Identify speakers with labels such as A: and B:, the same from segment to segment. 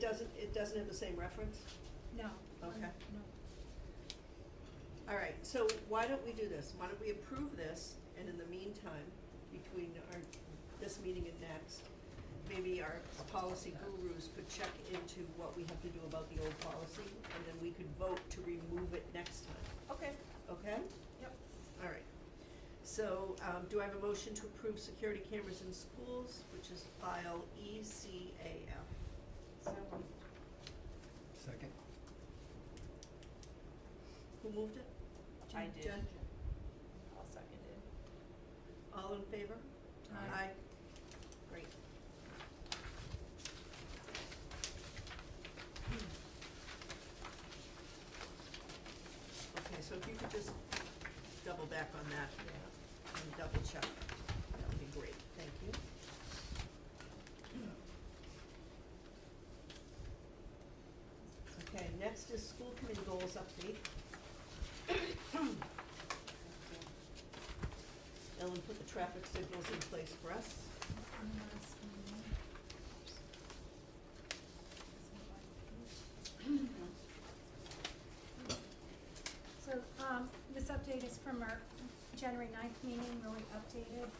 A: doesn't, it doesn't have the same reference?
B: No.
A: Okay.
B: No.
A: All right, so why don't we do this? Why don't we approve this, and in the meantime, between our, this meeting and next, maybe our policy gurus could check into what we have to do about the old policy, and then we could vote to remove it next time,
B: Okay,
A: okay?
B: yep.
A: All right. So, um, do I have a motion to approve security cameras in schools, which is file E ECAF?
B: So,
C: Second.
A: Who moved it?
D: I
A: Jen-
D: did.
A: Jen?
D: I'll second it.
A: All in favor?
C: Aye.
A: Great. Okay, so if you could just double back on that and double check, that would be great, thank you. Okay, next is school committee goals update. Ellen put the traffic signals in place for us.
B: I'm gonna ask you. So, um, this update is from our January ninth meeting, really updated,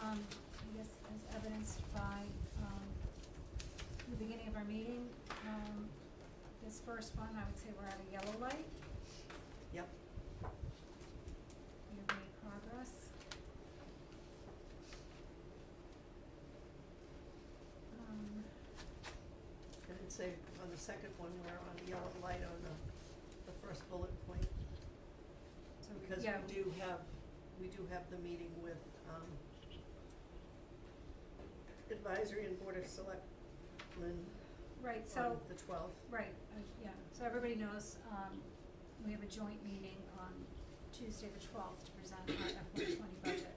B: um, I guess as evidenced by, um, the beginning of our meeting. Um, this first one, I would say we're at a yellow light,
A: Yep,
B: we've made progress. Um,
A: and it'd say on the second one, we're on the yellow light on the, the first bullet point.
B: So we-
A: Because
B: yeah.
A: we do have, we do have the meeting with, um, advisory and board of selectmen
B: Right,
A: on
B: so,
A: the twelfth.
B: right, uh, yeah, so everybody knows, um, we have a joint meeting on Tuesday the twelfth to present our FY twenty budget.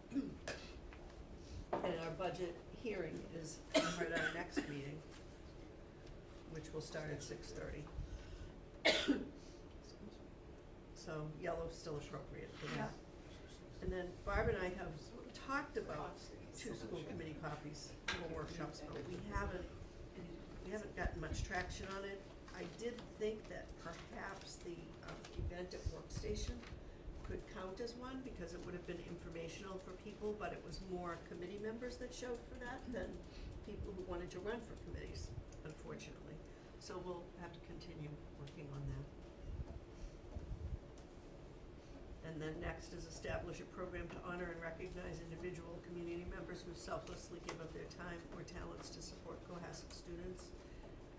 A: And our budget hearing is right at our next meeting, which will start at six thirty. So yellow's still appropriate for that. And then Barb and I have talked about two school committee copies for workshops, but we haven't, we haven't gotten much traction on it. I did think that perhaps the um, event at Workstation could count as one because it would have been informational for people, but it was more committee members that showed for that than people who wanted to run for committees, unfortunately. So we'll have to continue working on that. And then next is establish a program to honor and recognize individual community members who selflessly give up their time or talents to support Cohasset students.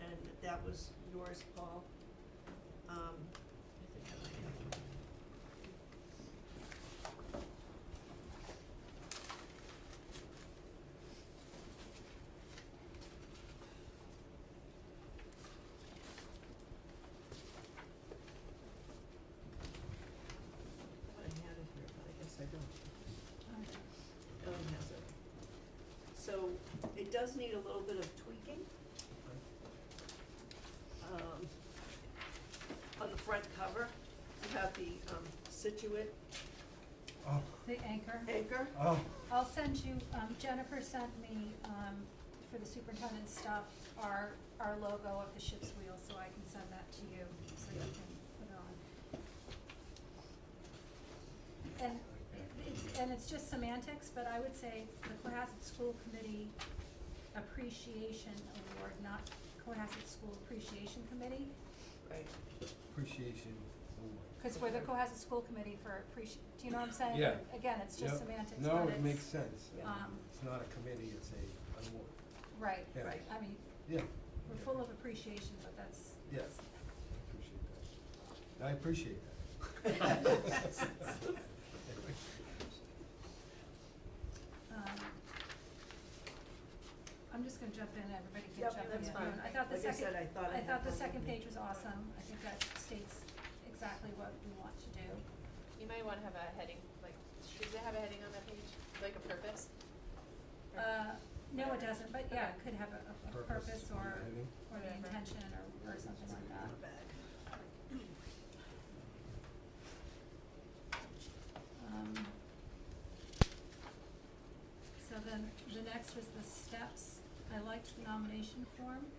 A: And that was yours, Paul. Um, I think I might have one. I had it here, but I guess I don't.
B: Um,
A: Ellen has it. So it does need a little bit of tweaking. Um, on the front cover, you have the, um, Situate
C: Oh,
B: The anchor.
A: anchor.
C: oh,
B: I'll send you, um, Jennifer sent me, um, for the superintendent stuff, our, our logo of the ship's wheel, so I can send that to you, so you can put it on. And it- it's, and it's just semantics, but I would say it's the Cohasset School Committee Appreciation Award, not Cohasset School Appreciation Committee,
A: Right.
C: appreciation award.
B: cause we're the Cohasset School Committee for appreci- do you know what I'm saying?
C: Yeah.
B: Again, it's just
C: Yep.
B: semantics, but
C: No, it
B: it's-
C: makes sense.
A: Yeah.
B: um,
C: It's not a committee, it's a award.
B: Right,
C: Yeah.
A: Right.
B: I mean,
C: Yeah.
B: We're
C: yeah,
B: full of appreciation, but that's.
C: Yeah, appreciate that. I appreciate that.
B: um, I'm just gonna jump in, everybody can
A: Yep,
B: jump in.
A: that's
B: if you want.
A: fine.
B: I thought the
A: Like I
B: second,
A: said, I thought I
B: I
A: had
B: thought the
A: one with
B: second
A: me.
B: page was awesome, I think that states exactly what we want to do.
D: You might wanna have a heading, like, does it have a heading on that page, like a purpose? Or-
B: Uh, no, it doesn't, but yeah, it could have a, a- a
C: Purpose,
B: purpose or,
C: heading.
B: or the
D: Whatever.
B: intention or, or something like that.
A: Bag.
B: Um, So then, the next was the steps. I liked the nomination form.